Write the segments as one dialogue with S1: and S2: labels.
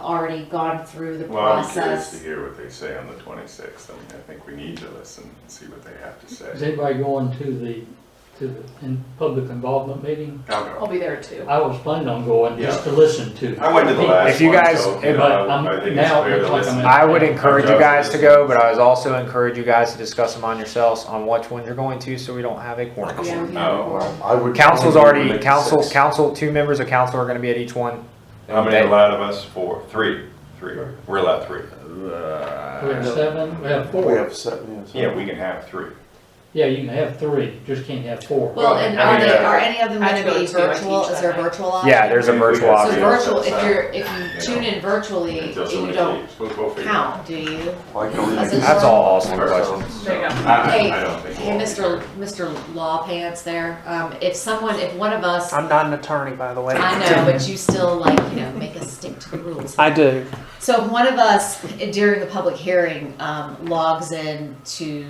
S1: already gone through the
S2: Well, I'm curious to
S1: process.
S2: hear what they say on the twenty-sixth. I mean, I think we need to listen and see what they have to
S3: Is
S2: say.
S3: anybody going to the, to the, in public involvement meeting?
S2: I'll
S4: I'll
S2: go.
S4: be there too.
S3: I was planning on going just to listen to.
S2: I went to the last
S5: Oh, If you
S2: one,
S5: guys-
S2: so, you
S5: if- uh,
S2: know, I I
S3: but I'm-
S2: think it's
S3: now it
S2: fair to
S3: looks like
S2: listen.
S3: I'm
S5: I would encourage you guys to go, but I was also encourage you guys to discuss them on yourselves on which one you're going to, so we don't have a quorum.
S1: Yeah, we have
S2: Oh.
S1: a quorum.
S6: I would.
S5: Council's
S6: I would
S5: already,
S6: make
S5: council,
S6: six.
S5: council, two members of council are gonna be at each one.
S2: How many
S5: They-
S2: allowed of us? Four, three, three. We're allowed three.
S3: We have seven, we have
S6: We
S3: four.
S6: have seven, yes.
S2: Yeah, we can have three.
S3: Yeah, you can have three, just can't have four.
S1: Well, and
S2: I
S1: are
S2: mean,
S1: they,
S2: uh,
S1: are any of them
S4: I had
S1: gonna
S4: to go
S1: be
S4: to two, I
S1: virtual?
S4: teach
S1: Is
S4: that
S1: there
S4: night.
S1: virtual option?
S5: Yeah, there's a
S2: Maybe we
S5: virtual
S2: got
S1: So
S2: Yeah,
S5: option.
S1: virtual, if
S2: that's, uh,
S1: you're, if
S2: you
S1: you tune
S2: know,
S1: in virtually,
S2: Until
S1: you
S2: somebody
S1: don't
S2: leaves. We'll, we'll figure it out.
S1: count, do you?
S6: Why can't we
S1: That's
S6: make
S1: a-
S5: That's all awesome
S6: six?
S5: questions.
S4: There you go.
S2: I,
S1: Hey,
S2: I don't think.
S1: hey,
S2: we'll-
S1: Mr. Mr. Law Pants there, um, if someone, if one of us,
S7: I'm not an attorney, by the way.
S1: I know, but you still like, you know, make us stick to the rules.
S7: I do.
S1: So if one of us during the public hearing, um, logs in to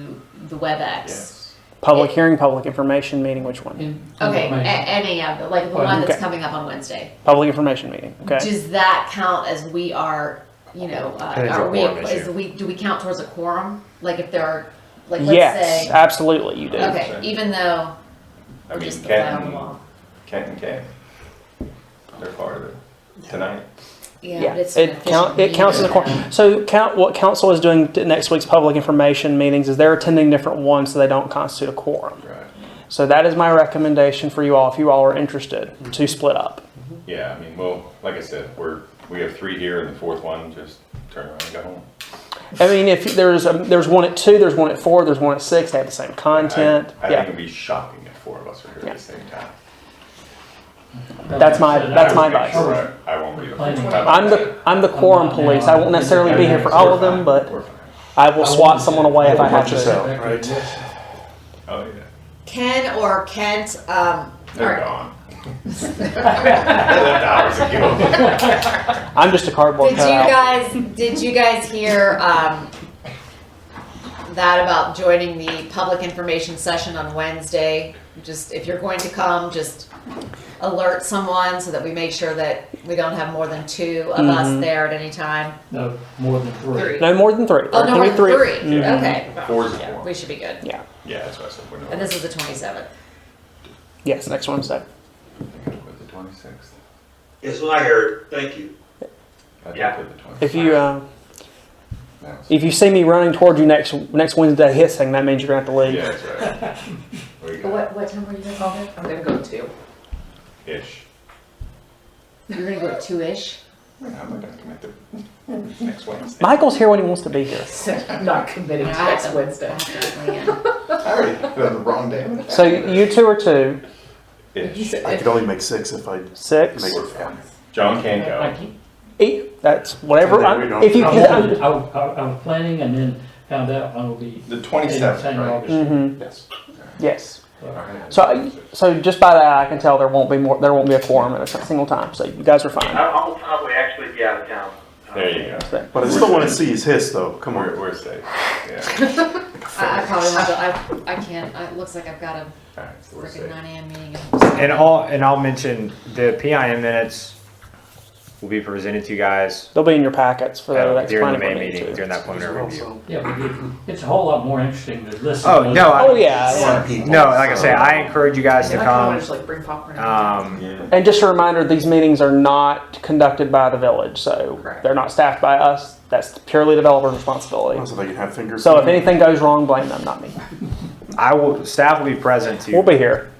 S1: the WebEx.
S2: Yes.
S7: Public hearing, public information meeting, which one?
S3: In-
S1: Okay, a-
S3: information.
S1: any of the, like the one that's
S7: Oh, Okay.
S1: coming up on Wednesday.
S7: Public information meeting, okay?
S1: Does that count as we are, you know, uh,
S5: Depends on
S1: are we,
S5: quorum
S1: is
S5: issue.
S1: we, do we count towards a quorum? Like if there are, like, let's
S7: Yes,
S1: say,
S7: absolutely, you do.
S1: okay, even though
S2: I
S1: we're
S2: mean,
S1: just the fly on the
S2: Kenton,
S1: wall.
S2: Kenton came. They're part of it tonight.
S1: Yeah,
S7: Yeah,
S1: but it's an
S7: it count, it
S1: efficient
S7: counts as a
S1: meeting.
S7: quorum. So count, what council is doing to next week's public information meetings is they're attending different ones, so they don't constitute a quorum.
S2: Right.
S7: So that is my recommendation for you all, if you all are interested, to split up.
S2: Yeah, I mean, well, like I said, we're, we have three here and the fourth one, just turn around and go home.
S7: I mean, if there's, a- there's one at two, there's one at four, there's one at six, they have the same content,
S2: I I think
S7: yeah.
S2: it'd be shocking if four of us are here at the same time.
S7: That's my-
S3: Like I said,
S7: that's
S2: I
S7: my
S2: would make
S7: advice.
S2: sure I I won't be the first one.
S7: I'm the, I'm the quorum police, I won't necessarily be here for all of them, but
S2: We're fine.
S7: I will swat someone away if I have to.
S6: yourself, right?
S2: Oh, yeah.
S1: Ken or Kent, um,
S2: They're
S1: or
S2: gone. They left hours ago.
S7: I'm just a cardboard
S1: did you
S7: cutout.
S1: guys, did you guys hear, um, that about joining the public information session on Wednesday? Just, if you're going to come, just alert someone so that we make sure that we don't have more than two of us
S7: Mhm.
S1: there at any time.
S3: No, more than three.
S4: Three.
S7: No more than three.
S1: Oh, no,
S7: There
S1: we're
S7: can be
S1: three,
S7: Mhm.
S1: okay,
S2: Four's a quorum.
S1: we should be good.
S7: Yeah.
S2: Yeah, that's what I said. We're not-
S1: And this is the twenty-seventh.
S7: Yes, next Wednesday.
S2: I think I put the twenty-sixth.
S8: It's what I heard, thank you.
S2: I think
S8: Yeah.
S2: I put the 26th.
S7: If you uh,
S2: That was-
S7: if you see me running toward you next next Wednesday hissing, that means you're gonna have to leave.
S2: Yeah, that's right. What do you got?
S1: what time were you gonna call it?
S4: I'm gonna go too.
S2: Ish.
S1: You're gonna go at two-ish?
S2: I'm not gonna commit to next Wednesday.
S7: Michael's here when he wants to be here.
S4: I'm not committed to
S1: Yeah, I have
S4: next
S1: to- I
S4: Wednesday.
S1: have to plan.
S2: I already had it on the wrong day. on the
S7: So
S2: calendar.
S7: you two are two,
S4: You
S2: Ish.
S4: said-
S6: I could only make six if I make
S7: six,
S6: it four.
S2: John can't
S3: I
S2: go.
S3: keep-
S7: eight. That's whatever.
S6: And then we
S7: I,
S6: don't-
S7: if you
S3: I
S7: can,
S3: wanted- I, I, I was planning and then found out I will be.
S2: The
S3: Same
S2: twenty-seventh, right?
S3: August.
S7: Mhm.
S2: Yes.
S7: yes.
S2: All right.
S7: So uh, I- So just by that, I can tell there won't be more. There won't be a quorum at a single time. So you guys are fine.
S8: I, I will probably actually be out of town.
S2: There you go.
S6: But I still wanna see his hiss though, come
S2: We're,
S6: on.
S2: we're safe. Yeah.
S1: I, I probably won't go, I, I can't, I- it looks like I've got a
S2: All right, so we're
S1: freaking
S2: safe.
S1: nine AM meeting.
S5: And all, and I'll mention, the PIM minutes will be presented to you guys
S7: They'll be in your packets Oh, for the
S5: uh,
S7: next
S5: during the
S7: planning
S5: main
S7: board
S5: meeting,
S7: meeting. too.
S5: during that preliminary review.
S3: Yeah, but it- it's a whole lot more interesting to listen.
S5: Oh,
S3: to.
S5: no, I-
S7: Mm-hmm. Oh yeah.
S5: No, like I say, I encourage you guys to
S4: I kinda wanna
S5: come.
S4: just like bring popcorn. and-
S5: Um,
S2: Yeah.
S7: And just a reminder, these meetings are not conducted by the village, so
S4: Correct.
S7: they're not staffed by us. That's purely developer's responsibility.
S6: So they can have fingers.
S7: So if anything goes wrong, blame them, not me.
S5: I will, staff will be present
S7: We'll
S5: to
S7: be here.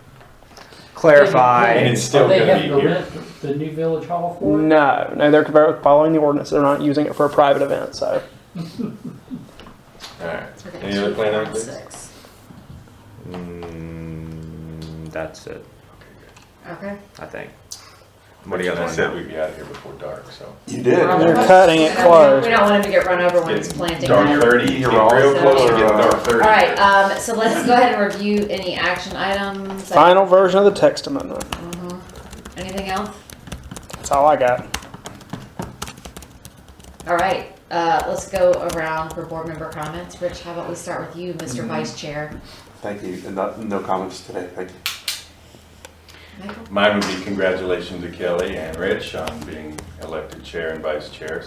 S5: clarify.
S2: And it's still
S3: Are they
S2: gonna
S3: having
S2: be
S3: to
S2: here.
S3: rent The new village hall for it?
S7: No, no, they're following the ordinance. They're not using it for a private event, so
S2: All right. Any other plan out, please?
S1: Six.
S5: Mm, That's it,
S1: Okay.
S5: I think.
S2: What do you guys said we'd be out of here before dark, so.
S6: You did.
S7: they're cutting it close.
S1: We don't want him to get run over when it's
S2: Getting
S1: planting.
S2: Dark
S1: All
S2: thirty,
S6: You're
S2: getting real
S6: all-
S2: close to getting
S6: uh,
S2: dark thirty.
S1: right, um, so let's go ahead and review any action items.
S7: Final version of the text amendment.
S1: Mhm. Anything else?
S7: That's all I got.
S1: All right, uh, let's go around for board member comments. Rich, how about we start with you,
S2: Mm-hmm.
S1: Mr. Vice Chair?
S6: Thank you, and not, no comments today, thank you.
S1: Michael?
S2: Mine would be congratulations to Kelly and Rich on being elected chair and vice chair, so